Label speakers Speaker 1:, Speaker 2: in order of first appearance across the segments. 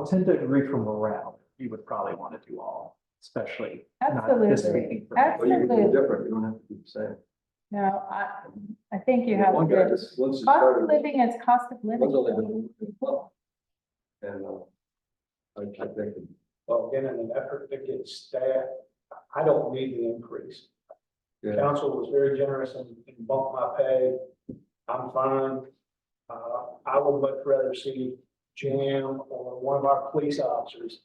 Speaker 1: I'll tend to agree for morale, you would probably want to do all, especially. not this
Speaker 2: Absolutely,
Speaker 1: meeting for
Speaker 3: Well, you can do it
Speaker 2: absolutely.
Speaker 3: different, you don't have to do the same.
Speaker 2: No, I, I think you have.
Speaker 3: One guy
Speaker 2: to-
Speaker 3: just, once he
Speaker 2: Cost of
Speaker 3: started,
Speaker 2: living is cost of
Speaker 3: once only
Speaker 2: living.
Speaker 3: been in club. And, uh, I, I think,
Speaker 4: Well, again, in an effort to get staff, I don't need the increase.
Speaker 3: Yeah.
Speaker 4: Council was very generous and and bumped my pay. I'm fine. Uh, I would much rather see Jim or one of our police officers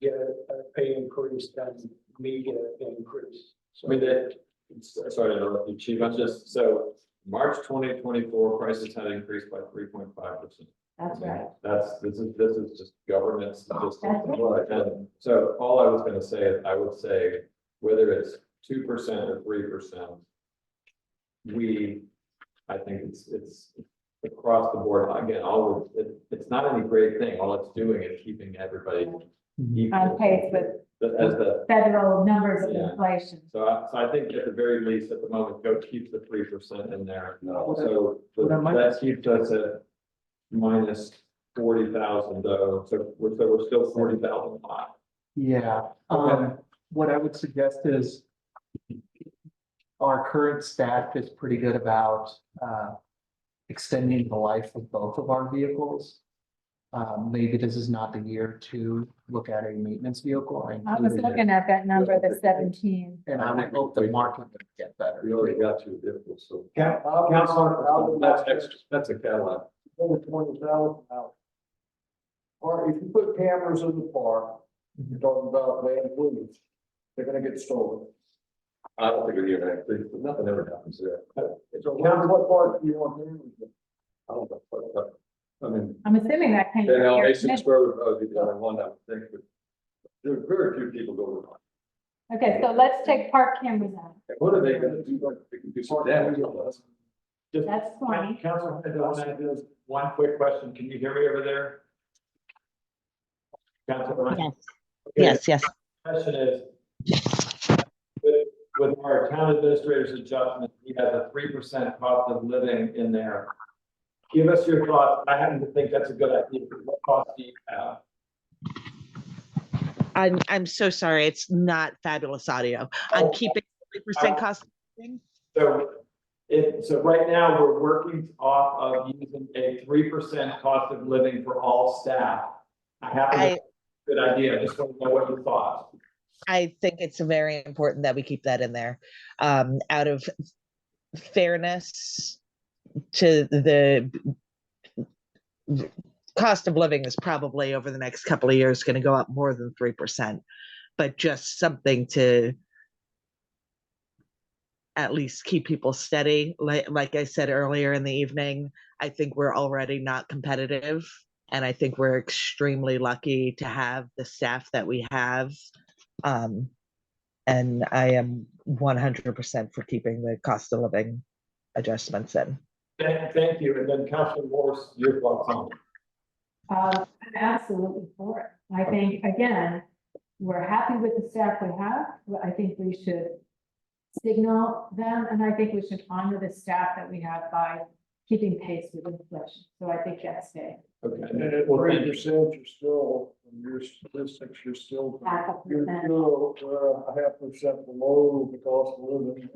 Speaker 4: get a a pay increase than me get an increase.
Speaker 5: I mean, that, sorry to interrupt you, Chief, I'm just, so March twenty twenty-four prices had increased by three point five percent.
Speaker 2: That's right. Oh,
Speaker 5: That's, this is, this is just government statistics.
Speaker 2: That's
Speaker 5: And so all I was gonna say, is I would say, whether it's two percent or three percent, we, I think it's, it's across the board, again, all, it, it's not any great thing, all it's doing is keeping everybody equal.
Speaker 2: On pace with
Speaker 5: As the,
Speaker 2: federal numbers of
Speaker 5: Yeah.
Speaker 2: inflation.
Speaker 5: so I, so I think at the very least, at the moment, go keep the three percent in there.
Speaker 1: No.
Speaker 5: So
Speaker 1: What I might-
Speaker 5: that keeps us at minus forty thousand though, so we're, so we're still forty thousand high.
Speaker 1: Yeah, um, what I would suggest is. Our current staff is pretty good about, uh, extending the life of both of our vehicles. Um, maybe this is not the year to look at a maintenance vehicle.
Speaker 2: I was
Speaker 1: included it,
Speaker 2: looking at that number, the seventeen.
Speaker 1: And I would hope the market would get better.
Speaker 3: we already got two vehicles, so.
Speaker 4: Council,
Speaker 3: That's extra, that's a Cadillac.
Speaker 4: over twenty thousand dollars. Or if you put cameras in the park, you're talking about land police, they're gonna get stolen.
Speaker 3: I don't think we're here to actually, but nothing ever happens there. It's a
Speaker 4: Council, what park do you want them in?
Speaker 3: I don't know, but, but, I mean,
Speaker 2: I'm assuming that came.
Speaker 3: then
Speaker 2: from your
Speaker 3: Mason
Speaker 2: commission.
Speaker 3: Square would probably be the only one I would think, but there are very few people go to.
Speaker 2: Okay, so let's take park cameras out.
Speaker 3: What are they gonna do? Like, They can do some damage.
Speaker 2: That's twenty.
Speaker 5: Council, one quick question, can you hear me over there? Council.
Speaker 6: Yes, yes, yes.
Speaker 5: Question is. With, with our town administrator's adjustment, we have a three percent cost of living in there. Give us your thoughts, I happen to think that's a good idea, what cost do you have?
Speaker 6: I'm, I'm so sorry. It's not fabulous audio. I'm
Speaker 5: Oh.
Speaker 6: keeping three percent
Speaker 5: Uh,
Speaker 6: cost.
Speaker 5: So, it, so right now, we're working off of using a three percent cost of living for all staff. I happen to
Speaker 6: I,
Speaker 5: think it's a good idea, I just want to know what you thought.
Speaker 6: I think it's very important that we keep that in there. Um, out of fairness to the the cost of living is probably over the next couple of years going to go up more than 3%, but just something to at least keep people steady. Like, like I said earlier in the evening, I think we're already not competitive. And I think we're extremely lucky to have the staff that we have. Um, and I am 100% for keeping the cost of living adjustments in.
Speaker 5: Thank, thank you, and then Councilman Morris, your thoughts on it.
Speaker 2: Uh, I'm absolutely for it. I think, again, we're happy with the staff we have, but I think we should signal them, and I think we should honor the staff that we have by keeping pace with inflation. So I think that's it.
Speaker 4: And
Speaker 5: Okay.
Speaker 4: at three percent, you're still, in your statistics, you're still,
Speaker 2: Half a
Speaker 4: you're
Speaker 2: percent.
Speaker 4: still, uh, a half percent below the cost of living.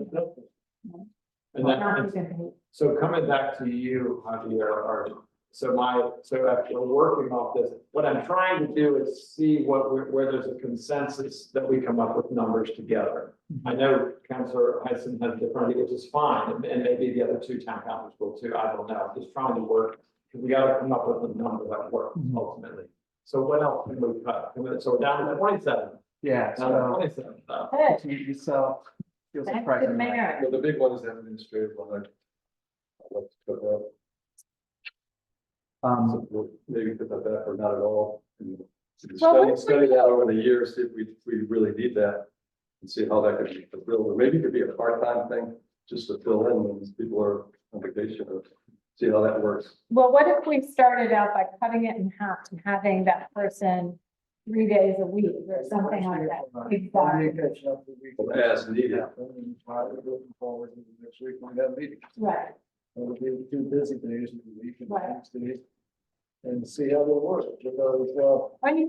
Speaker 5: And
Speaker 2: Not
Speaker 5: then,
Speaker 2: even-
Speaker 5: so coming back to you, Javier, or, so my, so after working off this, what I'm trying to do is see what, we're- where there's a consensus that we come up with numbers together. I know Councilor Heisen has different, ideas, which is fine, and- and maybe the other two town councils will too, I don't know, just trying to work. We gotta come up with a number that works
Speaker 1: Mhm.
Speaker 5: ultimately. So what else can we cut? So we're down to twenty-seven,
Speaker 1: Yeah,
Speaker 5: down to
Speaker 1: so,
Speaker 5: twenty-seven, uh,
Speaker 2: Good.
Speaker 1: you- so, feels
Speaker 2: Thank
Speaker 1: surprising.
Speaker 2: you, Mayor.
Speaker 3: Well, the big one is that administrative one. I'd like to put that.
Speaker 1: Um,
Speaker 3: So we'll Maybe put that back or not at all. and Study,
Speaker 2: Well, what if
Speaker 3: study that over the years, see if we, we really need that. And see how that could be fulfilled, or maybe it could be a part-time thing, just to fill in when these people are on vacation, or see how that works.
Speaker 2: Well, what if we started out by cutting it in half and having that person three days a week or something like that? Exactly.
Speaker 3: As needed.
Speaker 4: Looking forward to the next week, we have meetings.
Speaker 2: Right,
Speaker 4: It'll be two busy days in the week and
Speaker 2: Right.
Speaker 4: next days.
Speaker 3: and see how they work, because, uh,
Speaker 2: I mean,